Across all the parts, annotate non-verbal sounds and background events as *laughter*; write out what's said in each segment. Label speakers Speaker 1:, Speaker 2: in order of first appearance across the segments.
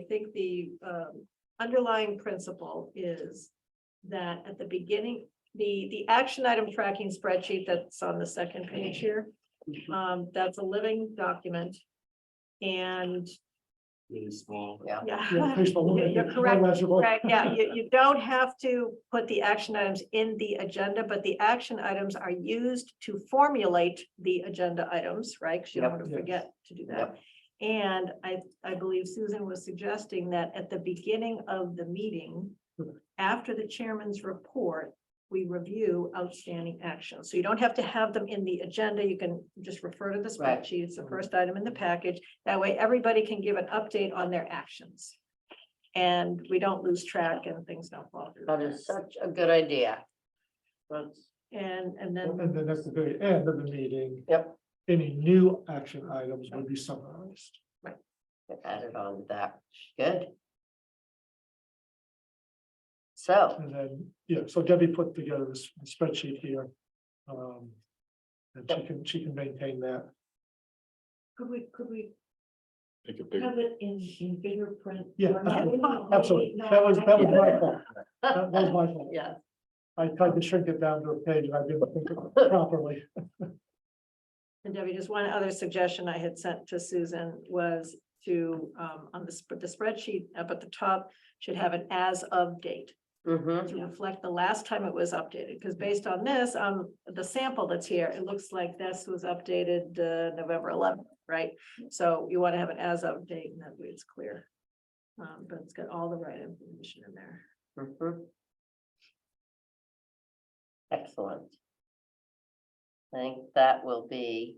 Speaker 1: I think the um underlying principle is that at the beginning, the the action item tracking spreadsheet that's on the second page here. Um, that's a living document. And
Speaker 2: Really small.
Speaker 3: Yeah.
Speaker 1: yeah,
Speaker 4: Yeah, pretty small,
Speaker 1: You're-
Speaker 4: okay,
Speaker 1: you're
Speaker 4: it's
Speaker 1: correct,
Speaker 4: manageable.
Speaker 1: *laughs* Right,
Speaker 4: *laughs*
Speaker 1: yeah, you, you don't have to put the action items in the agenda, but the action items are used to formulate the agenda items, right? Because you don't
Speaker 3: Yep.
Speaker 1: want to
Speaker 4: Yes.
Speaker 1: forget to do that. And I, I believe Susan was suggesting that at the beginning of the meeting,
Speaker 3: Hmm.
Speaker 1: after the chairman's report, we review outstanding actions. So you don't have to have them in the agenda. You can just refer to the
Speaker 3: Right. Hmm.
Speaker 1: spreadsheet. It's the first item in the package. That way, everybody can give an update on their actions. And we don't lose track and things don't fall through.
Speaker 3: That is such a good idea. That's-
Speaker 1: And, and
Speaker 4: And
Speaker 1: then,
Speaker 4: then at the very end of the meeting,
Speaker 3: Yep,
Speaker 4: any new action items would be summarized.
Speaker 3: get added on to that, good. So,
Speaker 4: And then, yeah, so Debbie put together this spreadsheet here. Um, and she can, she can maintain that.
Speaker 5: Could we, could we
Speaker 2: Make a big,
Speaker 5: have it in, in bigger print?
Speaker 4: Yeah,
Speaker 5: format?
Speaker 4: absolutely, absolutely. That was, that was my fault. That was my fault.
Speaker 3: yeah,
Speaker 4: I tried to shrink it down to a page and I didn't think of it properly.
Speaker 1: and Debbie, just one other suggestion I had sent to Susan was to, um, on the, sp- the spreadsheet up at the top should have an as of date.
Speaker 3: mm-hmm,
Speaker 1: to reflect the last time it was updated, because based on this, um, the sample that's here, it looks like this was updated, uh, November eleventh, right? So you want to have an as of date and that way it's clear. Um, but it's got all the right information in there.
Speaker 3: mm-hmm. Excellent. I think that will be,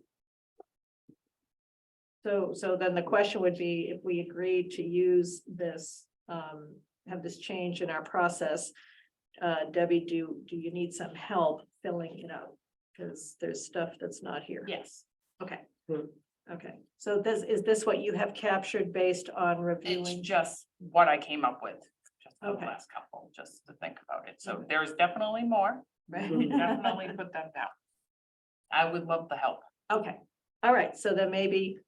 Speaker 1: So, so then the question would be, if we agree to use this, um, have this change in our process. Uh, Debbie, do, do you need some help filling it out? Because there's stuff that's not here.
Speaker 5: Yes,
Speaker 1: Okay.
Speaker 3: Hmm.
Speaker 1: Okay, so this, is this what you have captured based on
Speaker 6: It's
Speaker 1: reviewing?
Speaker 6: just what I came up with. just for the
Speaker 1: Okay.
Speaker 6: Last couple, just to think about it. So there's definitely more.
Speaker 1: Right?
Speaker 6: *laughs* We Mm, Definitely put them down. I would love the help.
Speaker 1: *laughs* Okay, all right, so then maybe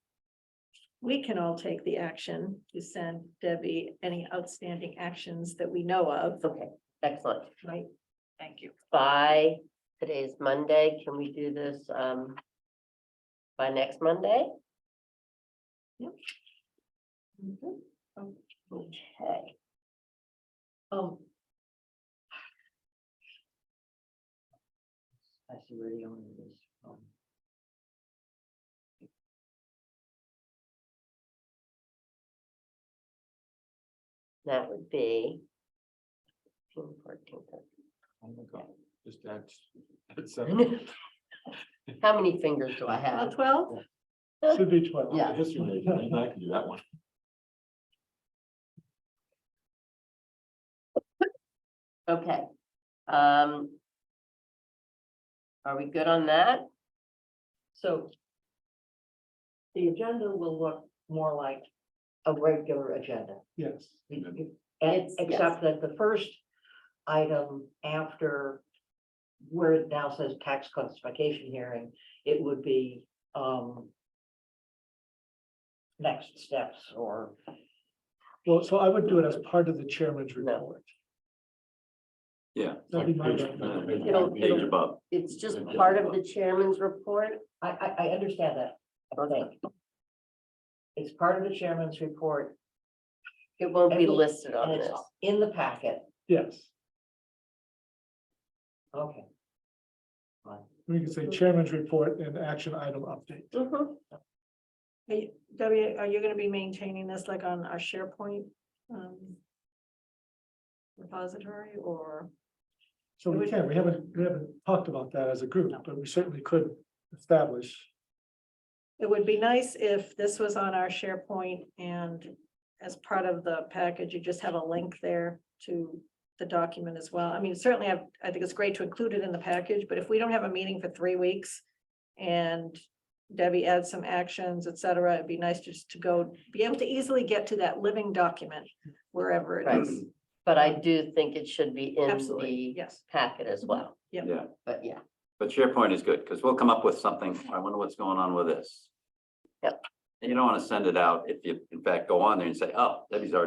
Speaker 1: we can all take the action to send Debbie any outstanding actions that we know of,
Speaker 3: okay, excellent.
Speaker 1: right?
Speaker 6: Thank you.
Speaker 3: By today's Monday, can we do this, um, by next Monday? Mm-hmm. Okay.
Speaker 5: um,
Speaker 3: I see where the owner is from. That would be. 15, 14,
Speaker 2: oh my god, just add, add
Speaker 3: 13.
Speaker 2: seven.
Speaker 3: How many fingers do I
Speaker 1: Well,
Speaker 3: have?
Speaker 1: twelve,
Speaker 4: Should be twelve.
Speaker 3: Yeah.
Speaker 2: History major, I can do that one.
Speaker 3: Okay. Um. Are we good on that?
Speaker 5: so. The agenda will look more like a regular agenda.
Speaker 4: Yes.
Speaker 5: And
Speaker 3: It's- yes.
Speaker 5: except that the first item after where it now says tax classification hearing, it would be, um, next steps or
Speaker 4: Well, so I would do it as part of the chairman's
Speaker 3: No.
Speaker 4: report.
Speaker 2: Yeah.
Speaker 4: That'd be my
Speaker 2: Page-
Speaker 4: recommendation.
Speaker 3: It'll-
Speaker 2: Page
Speaker 3: it'll-
Speaker 2: above.
Speaker 3: It's just part of the chairman's report.
Speaker 5: I, I, I understand that, I think. It's part of the chairman's report
Speaker 3: It won't be
Speaker 5: It'll-
Speaker 3: listed on
Speaker 5: and it's
Speaker 3: this.
Speaker 5: in the packet,
Speaker 4: Yes,
Speaker 5: okay.
Speaker 4: we can say chairman's report and action item update.
Speaker 3: Mhm.
Speaker 1: Debbie, are you gonna be maintaining this like on our SharePoint? um, Repository or,
Speaker 4: So we can, we haven't, we haven't talked about that as a group, but we certainly could establish.
Speaker 1: it would be nice if this was on our SharePoint and as part of the package, you just have a link there to the document as well. I mean, certainly, I, I think it's great to include it in the package, but if we don't have a meeting for three weeks and Debbie adds some actions, et cetera, it'd be nice just to go, be able to easily get to that living document wherever it
Speaker 3: Right.
Speaker 1: is.
Speaker 3: But I do think it should be in
Speaker 1: Absolutely,
Speaker 3: the
Speaker 1: yes.
Speaker 3: packet
Speaker 5: Mm-hmm.
Speaker 3: as well,
Speaker 7: Yeah,
Speaker 3: but yeah.
Speaker 7: *clears throat* but SharePoint is good, because we'll come up with something, I wonder what's going on with this.
Speaker 3: Yep.
Speaker 7: And you don't want to send it out if you, in fact, go on there and say, oh, Debbie's already